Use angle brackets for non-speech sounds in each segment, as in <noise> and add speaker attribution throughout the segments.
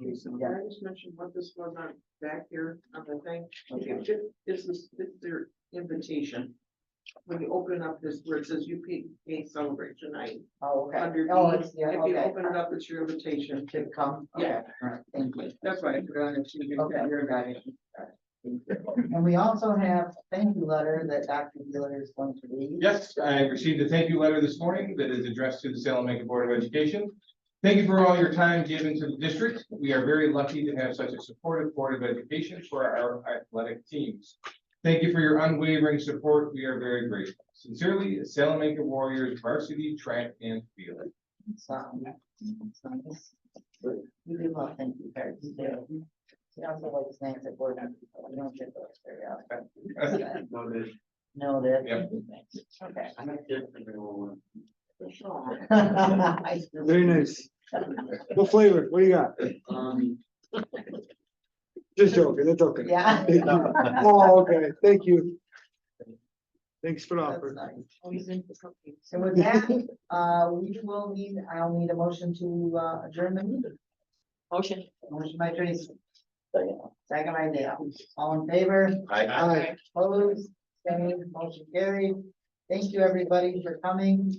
Speaker 1: Okay, so
Speaker 2: Yeah.
Speaker 1: can I just mention what this was on back here on the thing?
Speaker 2: Okay.
Speaker 1: It ju- This is, this is their invitation. When you open up this, where it says UPA celebration night.
Speaker 2: Oh, okay.
Speaker 1: under
Speaker 2: Oh,
Speaker 1: E,
Speaker 2: it's, yeah,
Speaker 1: If you
Speaker 2: okay.
Speaker 1: open it up, it's your invitation.
Speaker 2: To come, okay,
Speaker 1: Yeah.
Speaker 2: all right, thank you.
Speaker 1: That's why I forgot it. You didn't
Speaker 2: Okay.
Speaker 1: have your guide.
Speaker 2: And we also have thank you letter that Dr. Wheeler is going to read.
Speaker 3: Yes, I received a thank you letter this morning that is addressed to the Salem Lake Board of Education. Thank you for all your time given to the district. We are very lucky to have such a supportive Board of Education for our athletic teams. Thank you for your unwavering support. We are very grateful. Sincerely, Salem Lake Warriors varsity track and field.
Speaker 2: So, so this- We do love thank you cards. we do. We also like snacks at board meetings, but we don't get those very
Speaker 1: <laughs>
Speaker 2: often. Know that.
Speaker 3: Yep.
Speaker 2: Okay.
Speaker 1: Michelle,
Speaker 2: I-
Speaker 4: Very nice. What flavor? What do you got? Just joking, that's okay.
Speaker 2: <laughs> Yeah.
Speaker 4: Thank you. Oh, okay, thank you. Thanks for the
Speaker 2: That's
Speaker 4: offer.
Speaker 2: nice. So with that, uh, we will need, I'll need a motion to uh, adjourn the meeting. Motion. Motion by Tracy. Second by Dale. All in favor?
Speaker 4: Hi.
Speaker 2: Opposed, standing, motion carried. Thank you, everybody, for coming.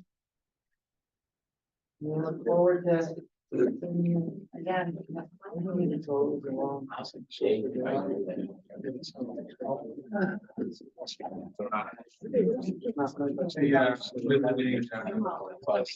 Speaker 2: We look forward to seeing you again.
Speaker 3: Yeah. with the name, uh, plus.